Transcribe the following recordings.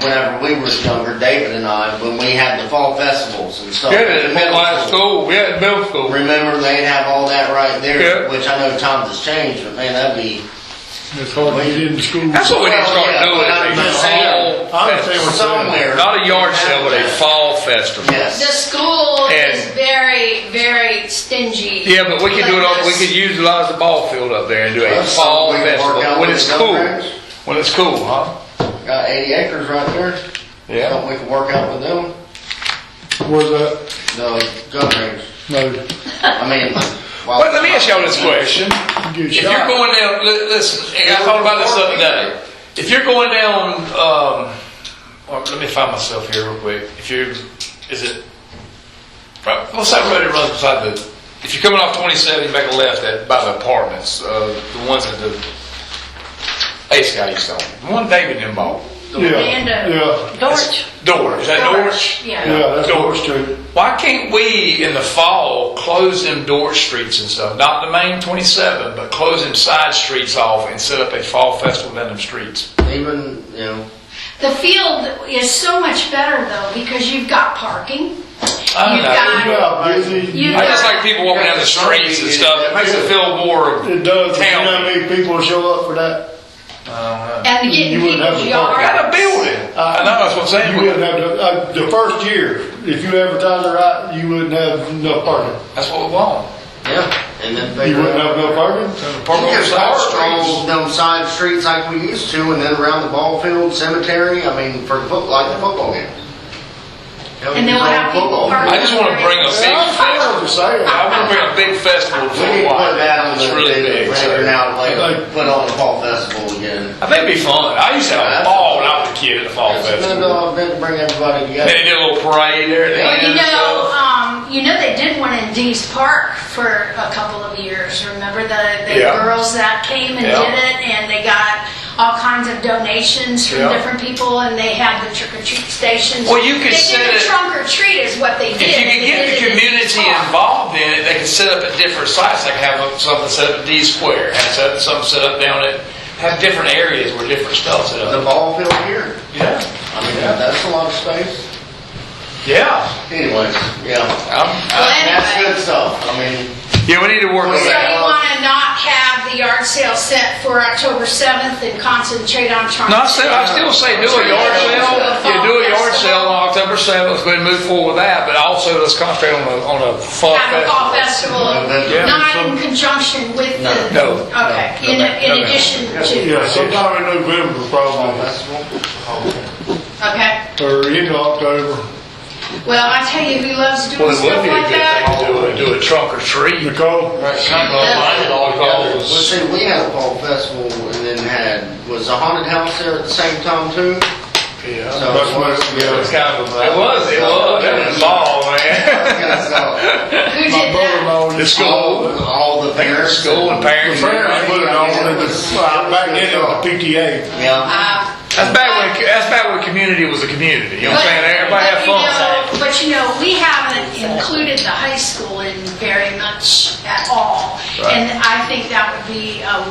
whenever we was younger, David and I, when we had the fall festivals and stuff. Yeah, at the at middle my school, yeah, at middle school. Remember, they'd have all that right there, Yeah. which I know times has changed, but man, that'd be, It's hard to get into school. That's what we need to start Well, yeah, but I'm doing. just is saying, a fall I understand festival. what- somewhere. Not a yard sale, but a fall festival. The Yes. school is And- very, very stingy. Yeah, but we could do it on, we could utilize the ball field up there and do a That's fall something we can work festival out when with it's the cool. programs. When it's cool, huh? Got eighty acres right there. Yeah. Something we can work out with them, Where's that? the gun range. No. I mean, wow. Well, let me ask y'all this question. Get If you're shot. going down, li- listen, and I thought about this the other day. If you're going down, um, well, let me find myself here real quick. If you're, is it, right, what's that road that runs beside the, if you're coming off 27, you make a left at, by the apartments, uh, the ones that the Ace guy used to own. The one David them bought. Yeah, Orlando. yeah, Dorch. Door, is that Dorch, Dorch? Yeah. yeah, that's Door. Door Street. Why can't we, in the fall, close them door streets and stuff? Not the main 27, but close them side streets off and set up a fall festival down them streets. Even, you know, The field is so much better though, because you've got parking. I don't You've know. Yeah, busy. You- I just like people walking down the streets and stuff. It makes it feel more. It does, you know how Town. many people show up for that? And getting You wouldn't have people's the parking. I got a yards. building. I know, that's what I'm saying. Uh, You wouldn't have, the- uh, the first year, if you advertise it right, you wouldn't have enough parking. That's what we want. yeah, and then You figure wouldn't out. have enough parking? Park on the Just side out streets. stroll them side streets like we used to, and then around the ball field, cemetery, I mean, for the foot, like the football games. Hell, And you then can we'll throw have a people football park- I just want to bring a big Yeah, I know what festival. you're saying. I want to bring a big festival to We need to put that on Hawaii. It's the, really the big. so- record now, like, Like- put on the fall festival again. I think it'd be fun. I used to have a ball when I was a kid at the fall It's a good, festival. uh, event to bring everybody Then together. they did a little parade there. at the Well, end you and know, stuff. um, you know, they did one in Dee's Park for a couple of years. Remember the, the Yeah. girls that came and Yeah. did it, and they got all kinds of donations from Yeah. different people, and they had the trick or treat stations. Well, you could they set did a it- trunk or treat is what they If did. you and could they get did the it in Dee's community Park. involved in it, they could set up at different sites, like have something set up at D Square, have set- something set up down at, have different areas where different stuff set The up. ball field here, Yeah, I mean, that's a lot of space. yeah. Anyways, yeah, I'm- Well, that's anyway, good stuff, I mean, Yeah, we need to work on so that. you want to not have the yard sale set for October seventh and concentrate on trunk. No, I still, I still say do a yard sale, yeah, do a yard sale on October seventh, go ahead and move forward with that, but also let's concentrate on a, on a fun Have a fall festival. festival, Yeah. not in conjunction with the. No. Okay, in, in addition to, Yeah, sometime in November fall probably, festival, okay. or end of October, Well, I tell you, who loves Well, doing it stuff would be a like good that? thing to do a, do a trunk or treat. Nicole. Well, see, we had a fall festival and then had, was a haunted house there at the same time too? Yeah. So That's it was- what- yeah. it It was was kind of, it was, it was, it was ball, man. kind of stuff. Who did My that? brother-in-law. It's cool. All, all the parents. School and parents. Apparently, put it on, it was, well, back then it was PTA. Yeah. Uh, That's back when that's back when community was a community. You know what I'm saying? Everybody but had you fun. know- But you know, we haven't included the high school in very much at all. And I think that would be a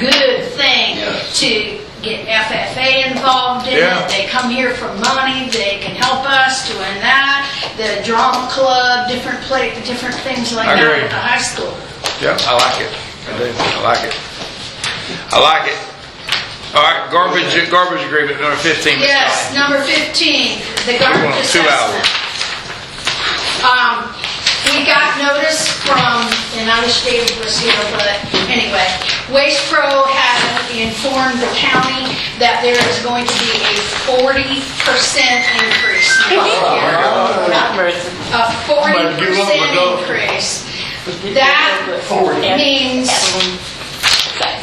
good thing Yes. to get FFA involved in Yeah. it. They come here for money, they can help us doing that, the drama club, different play, different things like I that agree. at the high school. Yeah, I like it. I do. I like it. I like it. All right, garbage garbage agreement number fifteen. Ms. Yes, number 15, the We're garbage going two assessment. Um, we got notice from, and I wish David was here, but anyway, Waste Pro has informed the county that there is going to be a 40% increase next year. A 40% Might give up my dog. increase. That means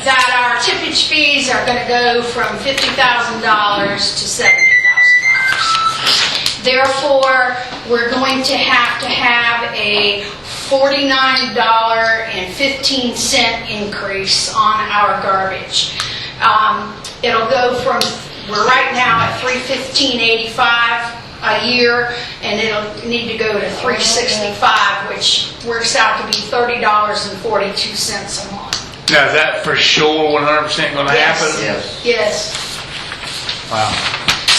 that our tippage fees are gonna go from fifty thousand dollars to seventy thousand dollars. Therefore, we're going to have to have a forty-nine dollar and fifteen cent increase on our garbage. Um, it'll go from, we're right now at three fifteen eighty-five a year, and it'll need to go to three sixty-five, which works out to be thirty dollars and forty-two cents a month. Now is that for sure one hundred percent gonna happen? Yes. Yes. Wow.